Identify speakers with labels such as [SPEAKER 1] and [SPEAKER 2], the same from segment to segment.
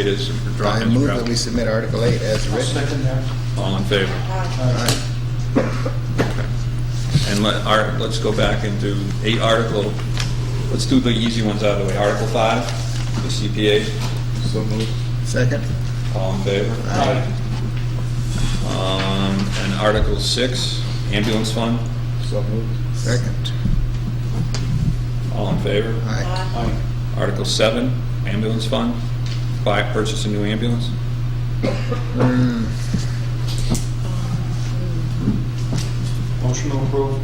[SPEAKER 1] It is
[SPEAKER 2] I
[SPEAKER 1] drawn
[SPEAKER 2] move
[SPEAKER 1] as
[SPEAKER 2] that we
[SPEAKER 1] drafted.
[SPEAKER 2] submit Article 8 as
[SPEAKER 3] I'll
[SPEAKER 2] written.
[SPEAKER 3] second that.
[SPEAKER 1] All in favor?
[SPEAKER 2] All right.
[SPEAKER 1] And let, our, let's go back and do eight article, let's do the easy ones out of the way. Article five, the CPA,
[SPEAKER 2] So moved. Second?
[SPEAKER 1] all in favor?
[SPEAKER 3] Aye.
[SPEAKER 1] Um, and Article six, ambulance fund,
[SPEAKER 2] So moved. Second.
[SPEAKER 1] all in favor?
[SPEAKER 2] Aye.
[SPEAKER 3] Aye.
[SPEAKER 1] Article seven, ambulance fund, buy, purchase a new ambulance,
[SPEAKER 3] Motion to approve.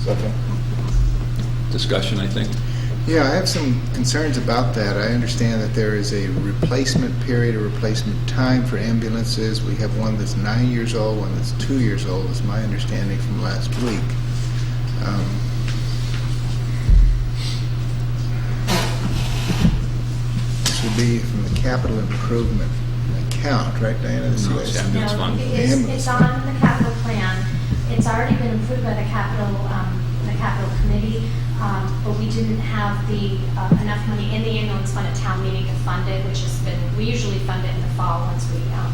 [SPEAKER 2] Second.
[SPEAKER 1] discussion, I think.
[SPEAKER 2] Yeah, I have some concerns about that. I understand that there is a replacement period, a replacement time for ambulances. We have one that's nine years old, one that's two years old, is my understanding from last week. Um, This would be from the capital improvement account, right, Diana? This
[SPEAKER 1] No,
[SPEAKER 2] is-
[SPEAKER 1] it's ambulance
[SPEAKER 4] No,
[SPEAKER 1] fund.
[SPEAKER 4] It's, it's on the capital plan. It's already been approved by the capital, um, the capital committee, um, but we didn't have the, uh, enough money in the ambulance fund at town meeting to fund it, which has been, we usually fund it in the fall once we, um,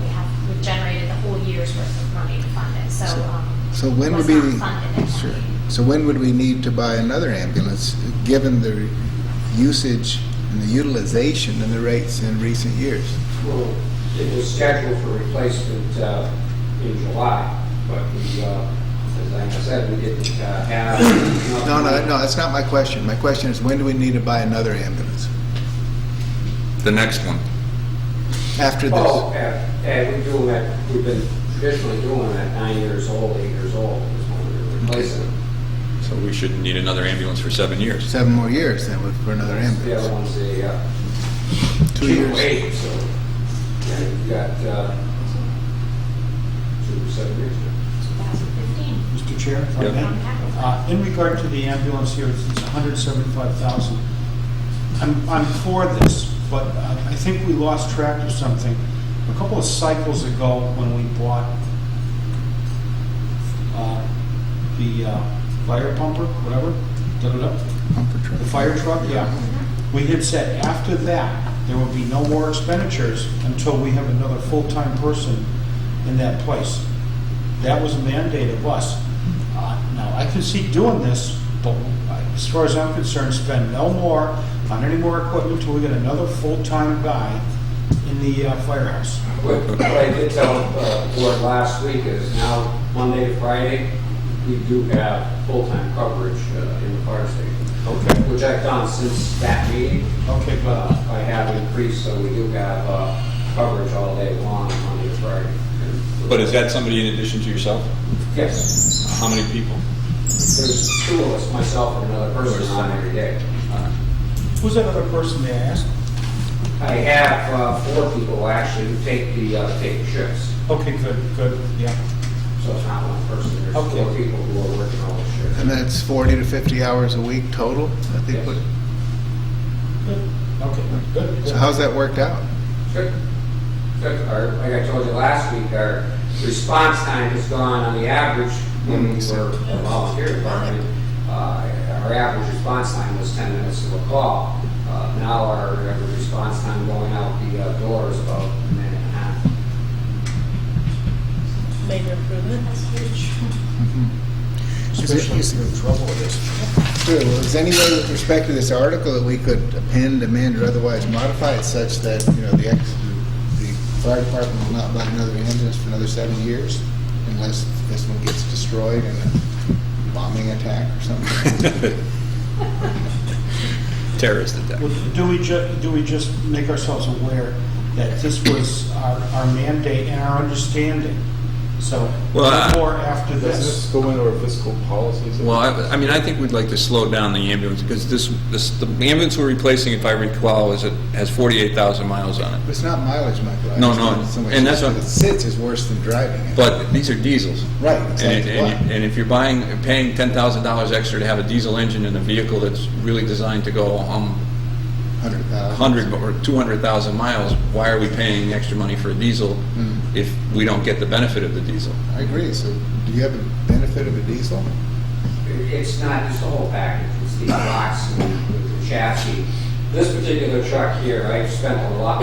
[SPEAKER 4] we have, we've generated the whole year's worth of money to fund it, so, um.
[SPEAKER 2] So when would
[SPEAKER 4] it was
[SPEAKER 2] be?
[SPEAKER 4] not funded at town
[SPEAKER 2] Sure.
[SPEAKER 4] meeting.
[SPEAKER 2] So when would we need to buy another ambulance, given the usage and the utilization and the rates in recent years?
[SPEAKER 5] Well, it was scheduled for replacement uh, in July, but we, uh, as I said, we didn't uh, have. enough
[SPEAKER 2] No, no,
[SPEAKER 5] money.
[SPEAKER 2] no, that's not my question. My question is, when do we need to buy another ambulance?
[SPEAKER 1] The next one.
[SPEAKER 2] After
[SPEAKER 5] Oh,
[SPEAKER 2] this?
[SPEAKER 5] and and we do that, we've been traditionally doing that nine years old, eight years old, is when we're replacing. them.
[SPEAKER 1] So we shouldn't need another ambulance for seven years.
[SPEAKER 2] Seven more years then with- for another
[SPEAKER 5] The other
[SPEAKER 2] ambulance?
[SPEAKER 5] one's a uh,
[SPEAKER 2] Two
[SPEAKER 5] cheap
[SPEAKER 2] years?
[SPEAKER 5] wage, so, yeah, you've got uh, two, seven years.
[SPEAKER 4] 2015.
[SPEAKER 3] Mr. Chair, if I
[SPEAKER 1] Yeah.
[SPEAKER 3] may. Uh, In regard to the ambulance here, it's it's 175,000. I'm, I'm for this, but uh, I think we lost track of something. A couple of cycles ago, when we bought uh, the uh, fire pumper, whatever, da-da-da,
[SPEAKER 2] Pumper truck.
[SPEAKER 3] the fire truck, yeah. We had said after that, there will be no more expenditures until we have another full-time person in that place. That was a mandate of us. Uh, Now, I can see doing this, but as far as I'm concerned, spend no more on any more equipment until we get another full-time guy in the uh, firehouse.
[SPEAKER 5] What what I did tell uh, the board last week is now, Monday to Friday, we do have full-time coverage uh, in the fire station,
[SPEAKER 3] Okay.
[SPEAKER 5] which I've done since that meeting.
[SPEAKER 3] Okay,
[SPEAKER 5] Uh,
[SPEAKER 3] but
[SPEAKER 5] I have increased, so we do have uh, coverage all day long, Monday to Friday.
[SPEAKER 1] But is that somebody in addition to yourself?
[SPEAKER 5] Yes,
[SPEAKER 1] How many people?
[SPEAKER 5] there's two of us, myself and another person on every day. Uh,
[SPEAKER 3] who's that other person they asked?
[SPEAKER 5] I have uh, four people actually who take the, uh, take the shifts,
[SPEAKER 3] Okay, good, good, yeah.
[SPEAKER 5] so it's not one person, there's
[SPEAKER 3] Okay.
[SPEAKER 5] four people who are working all the shifts.
[SPEAKER 2] And that's 40 to 50 hours a week total, I think.
[SPEAKER 5] Yes.
[SPEAKER 2] what-
[SPEAKER 3] Good. Okay, good. good.
[SPEAKER 2] So how's that worked out?
[SPEAKER 5] Good. Good. Our, like I told you last week, our response time has gone on the average, when we were a volunteer department, uh, our average response time was ten minutes to a call. Uh, now our average response time going out the uh, door is about a minute and a half.
[SPEAKER 6] Major improvement. That's huge.
[SPEAKER 3] Especially if you're in trouble with this.
[SPEAKER 2] Sure, well, is there any way with respect to this article that we could append, amend, or otherwise modify it such that, you know, the ex, the fire department will not buy another ambulance for another seven years unless this one gets destroyed in a bombing attack or something?
[SPEAKER 1] Terrorist attack.
[SPEAKER 3] Well, Do we ju, do we just make ourselves aware that this was our, our mandate and our understanding? So,
[SPEAKER 1] Well, I-
[SPEAKER 3] more after
[SPEAKER 7] Does
[SPEAKER 3] this.
[SPEAKER 7] this go into our fiscal policies?
[SPEAKER 1] Well, I, I mean, I think we'd like to slow down the ambulance, because this, this, the ambulance we're replacing, if I recall, is, it has 48,000 miles on it.
[SPEAKER 2] It's not mileage, Michael. I
[SPEAKER 1] No,
[SPEAKER 2] understand
[SPEAKER 1] no,
[SPEAKER 2] it's so much-
[SPEAKER 1] and that's what-
[SPEAKER 2] It sits is worse than driving it.
[SPEAKER 1] But these are diesels.
[SPEAKER 2] Right,
[SPEAKER 1] And, it-
[SPEAKER 2] exactly.
[SPEAKER 1] and,
[SPEAKER 2] Why?
[SPEAKER 1] you- and if you're buying, paying $10,000 extra to have a diesel engine in a vehicle that's really designed to go, um,
[SPEAKER 2] Hundred thousand.
[SPEAKER 1] 100 or 200,000 miles, why are we paying extra money for a diesel
[SPEAKER 2] Mm.
[SPEAKER 1] if we don't get the benefit of the diesel?
[SPEAKER 2] I agree, so do you have a benefit of a diesel?
[SPEAKER 5] It- It's not just the whole package, it's the box and the chassis. This particular truck here, I've spent a lot